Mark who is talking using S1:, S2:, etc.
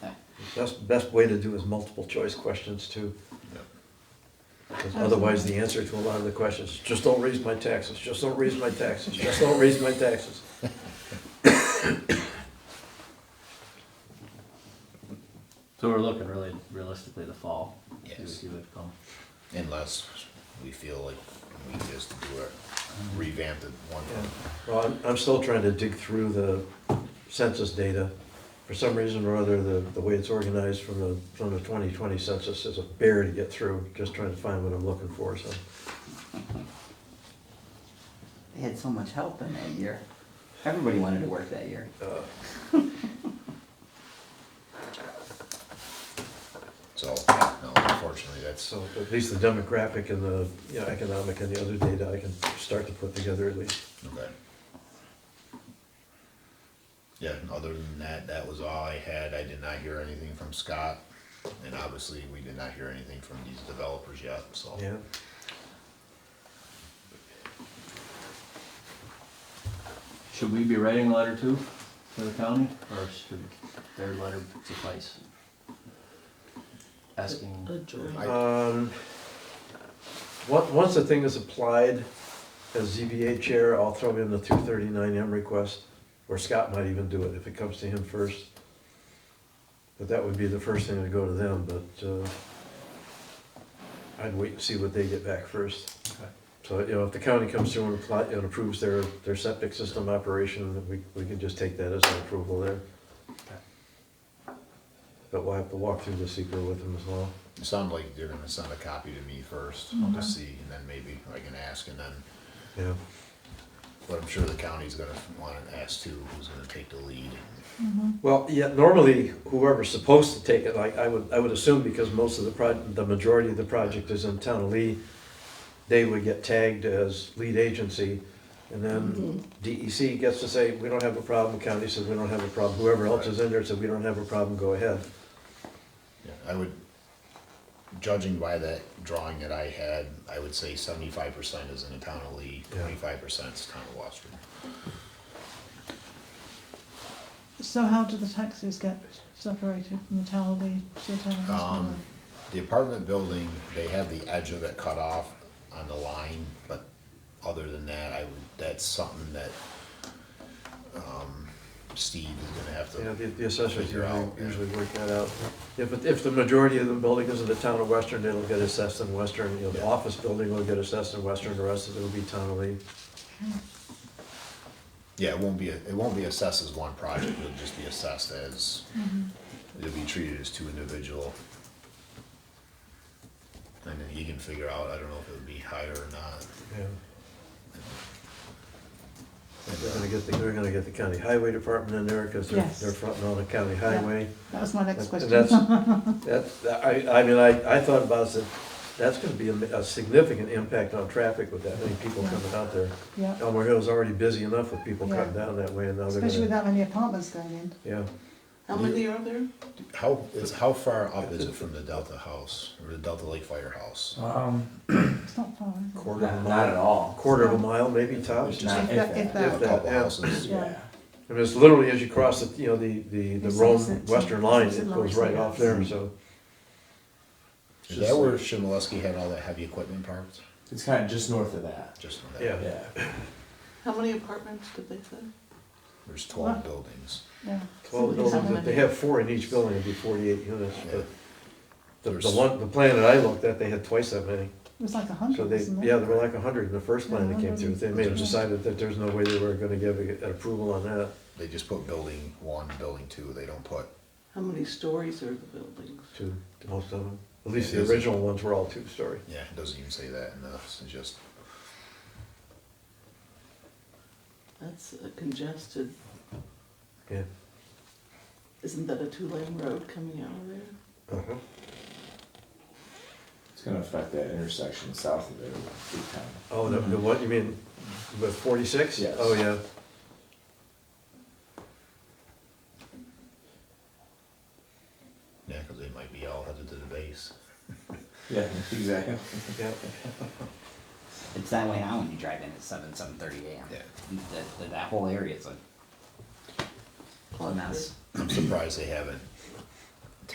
S1: Best, best way to do is multiple choice questions too. Because otherwise, the answer to a lot of the questions, just don't raise my taxes, just don't raise my taxes, just don't raise my taxes.
S2: So we're looking really realistically the fall. see what
S3: Yes.
S2: you would call.
S3: Unless we feel like we just do a revamped one.
S1: Yeah. Well, I'm, I'm still trying to dig through the census data. For some reason or other, the, the way it's organized from the, from the twenty twenty census is a bear to get through, just trying to find what I'm looking for, so.
S4: They had so much help in that year. Everybody wanted to work that year.
S1: uh,
S3: So, yeah, no, unfortunately, that's,
S1: So at least the demographic and the, you know, economic and the other data I can start to put together at least.
S3: okay. Yeah, and other than that, that was all I had. I did not hear anything from Scott. And obviously, we did not hear anything from these developers yet, so.
S1: Yeah,
S2: Should we be writing a letter too to the county or should their letter suffice? Asking.
S3: I-
S1: um, on- once the thing is applied, as ZBA chair, I'll throw in the two thirty-nine M request, or Scott might even do it if it comes to him first. But that would be the first thing to go to them, but, uh, I'd wait and see what they get back first.
S2: Okay.
S1: So, you know, if the county comes through and apply, and approves their, their septic system operation, then we, we can just take that as an approval there.
S2: Okay.
S1: But we'll have to walk through the secret with them as well.
S3: It sounded like they're gonna send a copy to me first to see, and then maybe I can ask, and then,
S1: Yeah.
S3: but I'm sure the county's gonna wanna ask too, who's gonna take the lead.
S1: Well, yeah, normally whoever's supposed to take it, like, I would, I would assume because most of the proj, the majority of the project is in town of Lee, they would get tagged as lead agency. And then DEC gets to say, we don't have a problem, county says we don't have a problem, whoever else is in there said we don't have a problem, go ahead.
S3: Yeah, I would, judging by that drawing that I had, I would say seventy-five percent is in the town of Lee,
S1: Yeah.
S3: twenty-five percent is town of Western.
S5: So how do the taxes get separated from the town of Lee to the town of Westmoreland?
S3: Um, the apartment building, they have the edge of it cut off on the line, but other than that, I would, that's something that, um, Steve is gonna have to.
S1: Yeah, the, the assessors
S3: Figure out, yeah.
S1: usually work that out. If, it- if the majority of the building is in the town of Western, it'll get assessed in Western, you know, the
S3: Yeah.
S1: office building will get assessed in Western, the rest of it will be town of Lee. Um,
S3: Yeah, it won't be, it won't be assessed as one project, it'll just be assessed as, it'll be treated as two individual. And then he can figure out, I don't know if it would be higher or not.
S1: Yeah. They're gonna get, the- they're gonna get the county highway department in there, cause they're,
S5: Yes.
S1: they're fronting on the county highway.
S5: That was my next
S1: And
S5: question.
S1: That's, that's, I, I mean, I, I thought about it, said, that's gonna be a, a significant impact on traffic with that many people coming out there.
S5: Yeah,
S1: Elmer Hill's already busy enough with people cutting
S5: Yeah.
S1: down that way and now they're
S5: especially with
S1: gonna,
S5: that many apartments going in.
S1: yeah.
S6: How many are there?
S3: How, is, how far up is it from the Delta House, or the Delta Lake Firehouse?
S1: Uh,
S7: Um,
S5: It's not far, is it?
S1: Quarter of a
S7: not, not
S1: mile,
S7: at all.
S1: quarter of a mile, maybe tops.
S3: Just
S7: Not
S5: If that- if
S7: that.
S3: A
S1: that,
S3: couple
S1: yeah.
S3: houses,
S5: Yeah.
S7: Yeah.
S1: I mean, it's literally as you cross the, you know, the, the, the
S5: It's
S1: Rome
S5: opposite to-
S1: Western line,
S5: opposite
S1: it
S5: lines,
S1: goes right
S5: yeah.
S1: off there, so.
S3: is that where Shimaleski had all that heavy equipment parked?
S7: It's kind of just north of that.
S3: Just on that,
S1: Yeah.
S7: Yeah.
S6: How many apartments did they say?
S3: there's twelve buildings,
S5: Yeah.
S1: Twelve
S6: Somebody's
S1: buildings,
S6: having
S1: they
S6: a-
S1: have four in each building, it'd be forty-eight units,
S3: yeah.
S1: but the, the
S3: There's-
S1: one, the plan that I looked at, they had twice that many.
S5: It was like a
S1: So
S5: hundred,
S1: they,
S5: wasn't it?
S1: yeah, there were like hundred in the first plan that came through, they may have
S3: Yeah.
S1: decided that there's no way they were gonna give a- an approval on that,
S3: They just put building one, building two, they don't put,
S6: How many stories are the buildings?
S1: to, to most of them. At least
S3: Yeah,
S1: the
S3: there's a-
S1: original ones were all two-story.
S3: yeah, it doesn't even say that enough, it's just
S6: That's a congested,
S1: Yeah.
S6: isn't that a two-lane road coming out of there?
S1: Uh-huh.
S7: It's gonna affect that intersection south of there, big time.
S1: Oh, the, the one, you mean, with forty-six?
S7: Yes.
S1: Oh, yeah.
S3: Yeah, because they might be all headed to the base.
S7: Yeah, exactly.
S1: Yeah,
S4: It's that way now when you drive in at seven, seven thirty AM.
S3: Yeah.
S4: That, that- that whole area is a, a mess.
S3: I'm surprised they haven't